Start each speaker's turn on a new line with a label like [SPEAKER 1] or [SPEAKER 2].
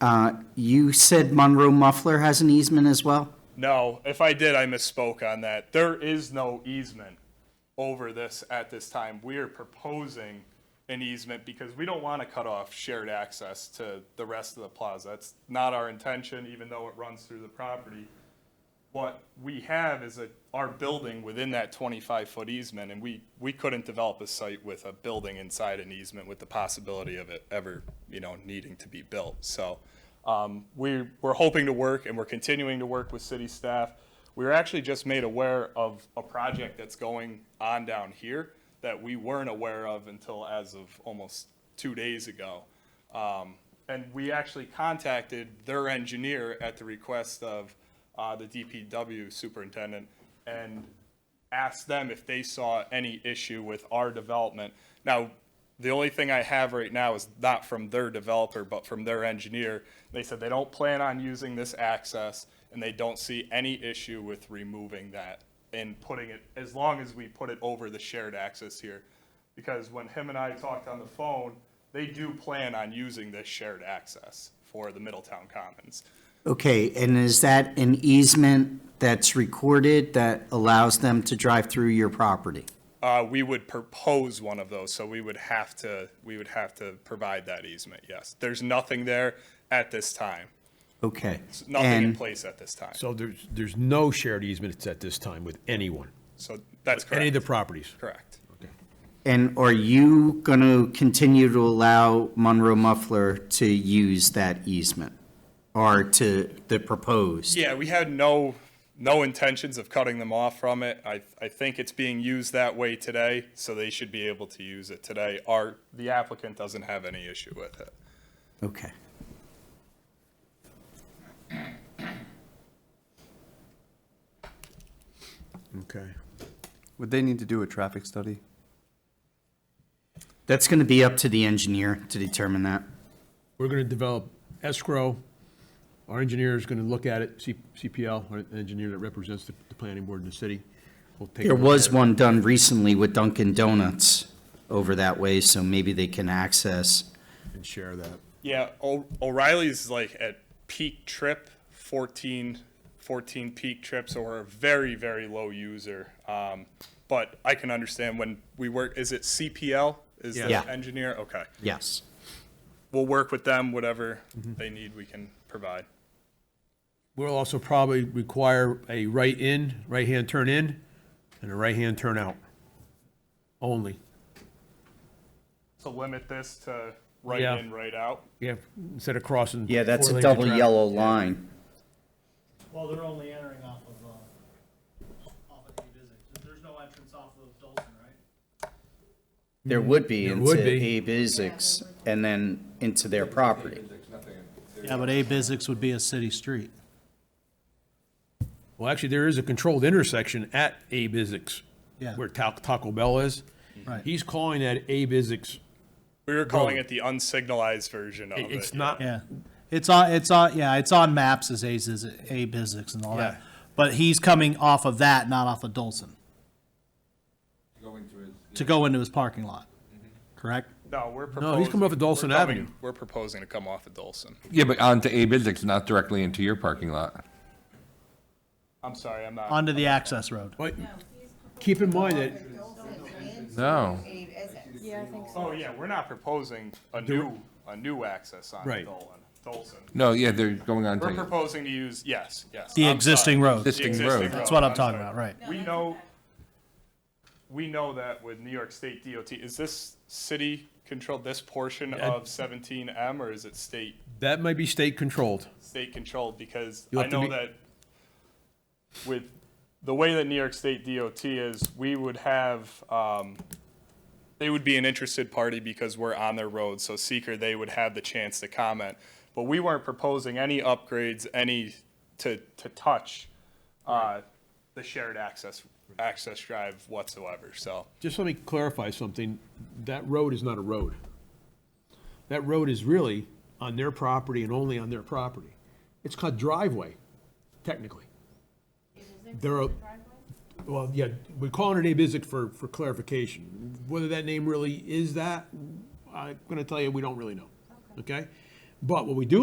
[SPEAKER 1] Uh, You said Monroe Muffler has an easement as well?
[SPEAKER 2] No, if I did, I misspoke on that. There is no easement over this at this time. We are proposing an easement because we don't want to cut off shared access to the rest of the plaza. That's not our intention, even though it runs through the property. What we have is a, our building within that twenty-five foot easement, and we, we couldn't develop a site with a building inside an easement with the possibility of it ever, you know, needing to be built. So, um, we, we're hoping to work and we're continuing to work with city staff. We were actually just made aware of a project that's going on down here that we weren't aware of until as of almost two days ago. Um, and we actually contacted their engineer at the request of, uh, the DPW superintendent and asked them if they saw any issue with our development. Now, the only thing I have right now is not from their developer, but from their engineer. They said they don't plan on using this access and they don't see any issue with removing that and putting it, as long as we put it over the shared access here. Because when him and I talked on the phone, they do plan on using this shared access for the Middletown Commons.
[SPEAKER 1] Okay, and is that an easement that's recorded that allows them to drive through your property?
[SPEAKER 2] Uh, we would propose one of those, so we would have to, we would have to provide that easement, yes. There's nothing there at this time,
[SPEAKER 1] Okay.
[SPEAKER 2] nothing in
[SPEAKER 1] And-
[SPEAKER 2] place at this time,
[SPEAKER 3] So there's, there's no shared easements at this time with anyone,
[SPEAKER 2] so that's
[SPEAKER 3] any of the
[SPEAKER 2] correct,
[SPEAKER 3] properties?
[SPEAKER 2] correct.
[SPEAKER 1] And are you going to continue to allow Monroe Muffler to use that easement? Or to the proposed?
[SPEAKER 2] Yeah, we had no, no intentions of cutting them off from it. I, I think it's being used that way today, so they should be able to use it today. Our, the applicant doesn't have any issue with it.
[SPEAKER 1] Okay.
[SPEAKER 3] Okay.
[SPEAKER 4] Would they need to do a traffic study?
[SPEAKER 1] That's going to be up to the engineer to determine that.
[SPEAKER 3] We're gonna develop escrow. Our engineer is gonna look at it, C- CPL, our engineer that represents the, the planning board in the city. will take a
[SPEAKER 1] There
[SPEAKER 3] look
[SPEAKER 1] was
[SPEAKER 3] at it.
[SPEAKER 1] one done recently with Dunkin' Donuts over that way, so maybe they can access.
[SPEAKER 3] And share that.
[SPEAKER 2] Yeah, O- O'Reilly's like at peak trip, 14, 14 peak trip, so we're a very, very low user. Um, but I can understand when we work, is it CPL? Is
[SPEAKER 1] Yeah.
[SPEAKER 2] the engineer? Okay.
[SPEAKER 1] Yes.
[SPEAKER 2] We'll work with them, whatever
[SPEAKER 3] Mm-hmm.
[SPEAKER 2] they need, we can provide.
[SPEAKER 3] We'll also probably require a right in, right-hand turn in, and a right-hand turn out. Only.
[SPEAKER 2] So limit this to right
[SPEAKER 3] Yeah.
[SPEAKER 2] in, right out.
[SPEAKER 3] Yeah, instead of crossing.
[SPEAKER 1] Yeah, that's
[SPEAKER 3] four
[SPEAKER 1] a
[SPEAKER 3] lanes of
[SPEAKER 1] double
[SPEAKER 3] traffic.
[SPEAKER 1] yellow line.
[SPEAKER 5] Well, they're only entering off of, uh, off of A-Bizzix. There's no entrance off of Dolson, right?
[SPEAKER 1] There would be
[SPEAKER 3] Mm-hmm. There
[SPEAKER 1] into
[SPEAKER 3] would be.
[SPEAKER 1] Abe Isaacs and then into their property.
[SPEAKER 5] Yeah, but A-Bizzix would be a city street.
[SPEAKER 3] Well, actually, there is a controlled intersection at Abe Isaacs.
[SPEAKER 5] Yeah.
[SPEAKER 3] Where Ta- Taco Bell is.
[SPEAKER 5] Right.
[SPEAKER 3] He's calling that Abe Isaacs.
[SPEAKER 2] We were calling it the unsignalized version of
[SPEAKER 3] It-
[SPEAKER 2] it.
[SPEAKER 3] It's not,
[SPEAKER 5] Yeah. It's on, it's on, yeah, it's on maps as A-Ziz- A-Bizzix and all
[SPEAKER 3] Yeah.
[SPEAKER 5] that. But he's coming off of that, not off of Dolson, to go into his parking lot, correct?
[SPEAKER 2] No, we're proposing.
[SPEAKER 3] No, he's coming off of Dawson
[SPEAKER 2] we're coming-
[SPEAKER 3] Avenue.
[SPEAKER 2] We're proposing to come off of Dolson.
[SPEAKER 6] Yeah, but onto Abe Isaacs, not directly into your parking lot.
[SPEAKER 2] I'm sorry, I'm not.
[SPEAKER 5] Onto the access road.
[SPEAKER 3] but keep in mind that,
[SPEAKER 6] No.
[SPEAKER 7] Yeah, I think so.
[SPEAKER 2] Oh, yeah, we're not proposing a new, a new access on
[SPEAKER 3] Right.
[SPEAKER 2] Dolan, Dolson.
[SPEAKER 6] No, yeah, they're going on
[SPEAKER 2] We're
[SPEAKER 6] to,
[SPEAKER 2] proposing to use, yes, yes.
[SPEAKER 5] The
[SPEAKER 2] I'm
[SPEAKER 5] existing
[SPEAKER 2] sorry.
[SPEAKER 5] road.
[SPEAKER 2] The
[SPEAKER 6] Existing
[SPEAKER 2] existing
[SPEAKER 6] road.
[SPEAKER 5] That's what I'm
[SPEAKER 2] Oh, sorry.
[SPEAKER 5] talking about, right.
[SPEAKER 2] We know, we know that with New York State DOT, is this city controlled, this portion of seventeen M, or is it state,
[SPEAKER 3] that might be state controlled.
[SPEAKER 2] state controlled? Because
[SPEAKER 3] You'll
[SPEAKER 2] I
[SPEAKER 3] have to
[SPEAKER 2] know
[SPEAKER 3] be-
[SPEAKER 2] that with the way that New York State DOT is, we would have, um, they would be an interested party because we're on their road, so seeker, they would have the chance to comment. But we weren't proposing any upgrades, any to, to touch, uh, the shared access, access drive whatsoever, so.
[SPEAKER 3] Just let me clarify something. That road is not a road. That road is really on their property and only on their property. It's called driveway, technically. They're, a- well, yeah, we're calling it Abe Isaac for, for clarification. Whether that name really is that, I'm gonna tell you, we don't really know, okay? But what we do